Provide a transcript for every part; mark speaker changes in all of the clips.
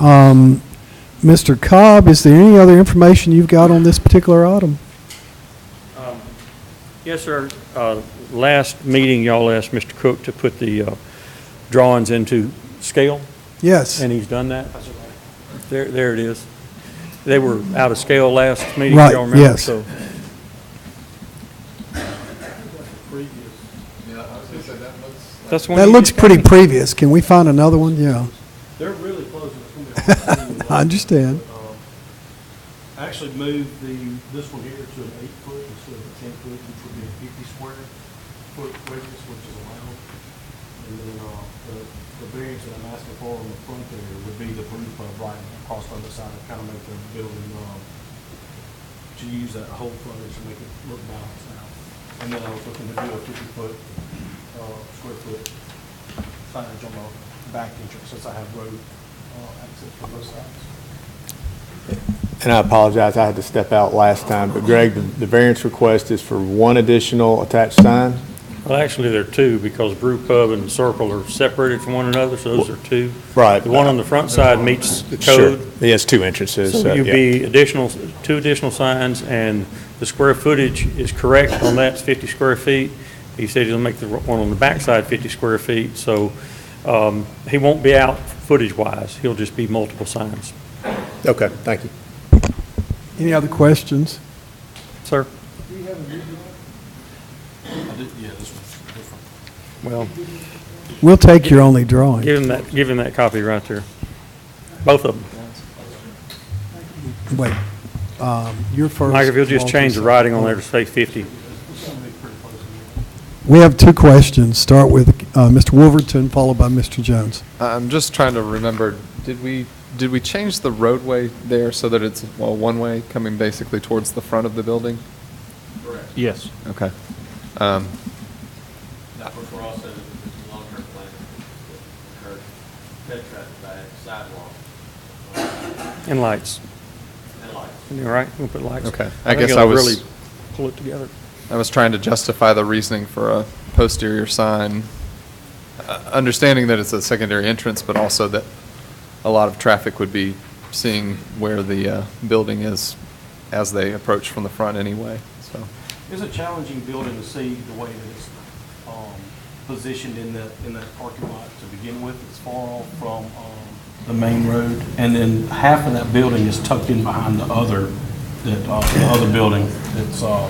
Speaker 1: Um, Mr. Cobb, is there any other information you've got on this particular item?
Speaker 2: Um, Yes, sir. Uh, Last meeting, y'all asked Mr. Cook to put the uh, drawings into scale,
Speaker 1: Yes.
Speaker 2: and he's done that. There, there it is. They were out of scale last meeting,
Speaker 1: Right,
Speaker 2: y'all remember?
Speaker 1: yes.
Speaker 2: So
Speaker 3: Yeah, I was gonna say, that looks like
Speaker 2: that's the one.
Speaker 1: That
Speaker 2: you
Speaker 1: looks
Speaker 2: did.
Speaker 1: pretty previous. Can we find another one? Yeah,
Speaker 4: They're really close. It's gonna be hard to see
Speaker 1: I understand.
Speaker 4: what, um, I actually moved the, this one here to an eight foot instead of a ten foot, which would be a fifty square foot radius, which is allowed. And then, uh, the, the variance that I'm asking for on the front there would be the roof of right across the other side, kind of make the building, um, to use that whole frontage to make it look balanced out. And then I was looking to do a fifty foot, uh, square foot signage on the back entrance, since I have road uh, access from both sides.
Speaker 3: And I apologize, I had to step out last time, but Greg, the- the variance request is for one additional attached sign?
Speaker 2: Well, actually, there are two, because Brew Pub and Circle are separated from one another, so those are two.
Speaker 3: Right.
Speaker 2: The one on the front side meets the
Speaker 3: Sure.
Speaker 2: code.
Speaker 3: It has two entrances.
Speaker 2: So you'd
Speaker 3: yeah.
Speaker 2: be additional, two additional signs, and the square footage is correct on that, it's 50 square feet. He said he'll make the one on the backside 50 square feet, so um, he won't be out footage-wise, he'll just be multiple signs.
Speaker 3: Okay, thank you.
Speaker 1: Any other questions?
Speaker 2: Sir?
Speaker 4: Yeah, this one's different.
Speaker 2: Well,
Speaker 1: We'll take your only drawing.
Speaker 2: give him that, give him that copy right there, both of them.
Speaker 1: Wait, um, you're first.
Speaker 2: Mike, if you'll just
Speaker 1: Walter,
Speaker 2: change the
Speaker 1: second.
Speaker 2: writing on there to say 50.
Speaker 1: We have two questions. Start with uh, Mr. Wolverton, followed by Mr. Jones.
Speaker 5: I'm just trying to remember, did we, did we change the roadway there so that it's, well, one-way coming basically towards the front of the building?
Speaker 4: Yes.
Speaker 5: Okay. Um,
Speaker 6: That was for also the long-term plan, curb, pet traffic back, sidewalk,
Speaker 2: And lights,
Speaker 6: and lights.
Speaker 2: all right, we'll put lights.
Speaker 5: Okay. I
Speaker 2: think
Speaker 5: guess
Speaker 2: it'll
Speaker 5: I was-
Speaker 2: really Pull it together.
Speaker 5: I was trying to justify the reasoning for a posterior sign, uh, understanding that it's a secondary entrance, but also that a lot of traffic would be seeing where the uh, building is as they approach from the front anyway, so.
Speaker 4: It's a challenging building to see the way that it's um, positioned in the, in that parking lot to begin with. It's far off from um, the main road, and then half of that building is tucked in behind the other, that, uh, the other building that's, uh,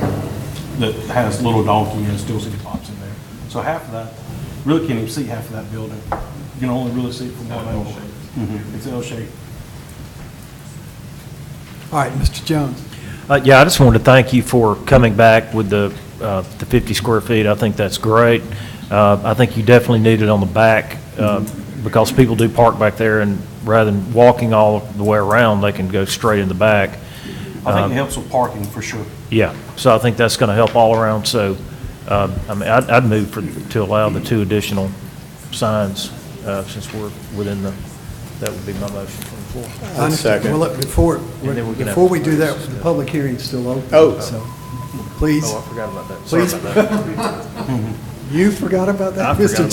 Speaker 4: that has Little Donkey and Steel City Pops in there. So half of that, really can't even see half of that building. You can only really see it from one angle. Mhm, It's L-shaped.
Speaker 1: All right, Mr. Jones.
Speaker 7: Uh, Yeah, I just wanted to thank you for coming back with the, uh, the 50 square feet. I think that's great. Uh, I think you definitely need it on the back uh, because people do park back there and rather than walking all the way around, they can go straight in the back.
Speaker 4: I think it helps with parking for sure.
Speaker 7: Yeah, so I think that's going to help all around. So, uh, I mean, I'd, I'd move for, to allow the two additional signs uh, since we're within the, that would be my motion from the floor.
Speaker 1: I understand.
Speaker 3: second.
Speaker 1: Well, look, before,
Speaker 7: And then we can have-
Speaker 1: before we do that, the public hearing's still open.
Speaker 3: Oh.
Speaker 1: So, please,
Speaker 7: Oh, I forgot about that.
Speaker 1: please. You forgot about that, Mr.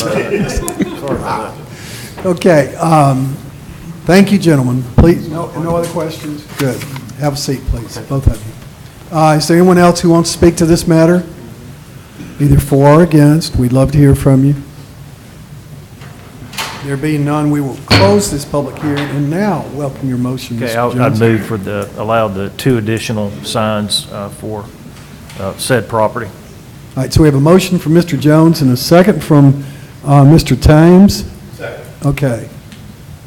Speaker 1: Jones? Okay, um, thank you, gentlemen. Please, no, no other questions? Good. Have a seat, please, both of you. Uh, is there anyone else who wants to speak to this matter? Either for or against? We'd love to hear from you. There being none, we will close this public hearing and now welcome your motion, Mr.
Speaker 7: Okay,
Speaker 1: Jones.
Speaker 7: I'll- I'd move for the, allow the two additional signs uh, for uh, said property.
Speaker 1: All right, so we have a motion from Mr. Jones and a second from uh, Mr. Thames. Second. Okay.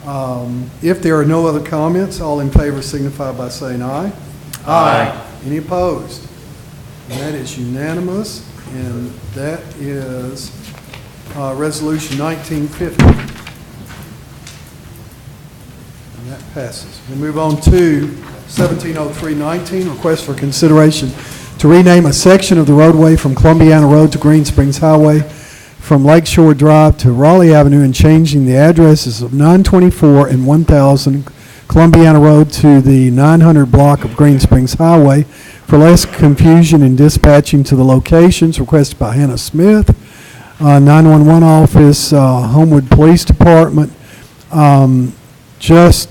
Speaker 1: Um, If there are no other comments, all in favor signify by saying aye. Aye. Any opposed? And That is unanimous, and that is uh, Resolution 1950. And that passes. We move on to 170319, request for consideration to rename a section of the roadway from Columbiana Road to Green Springs Highway, from Lakeshore Drive to Raleigh Avenue, and changing the addresses of 924 and 1000 Columbiana Road to the 900 block of Green Springs Highway for less confusion and dispatching to the locations requested by Hannah Smith, uh, 911 office, uh, Homewood Police Department. Um, Just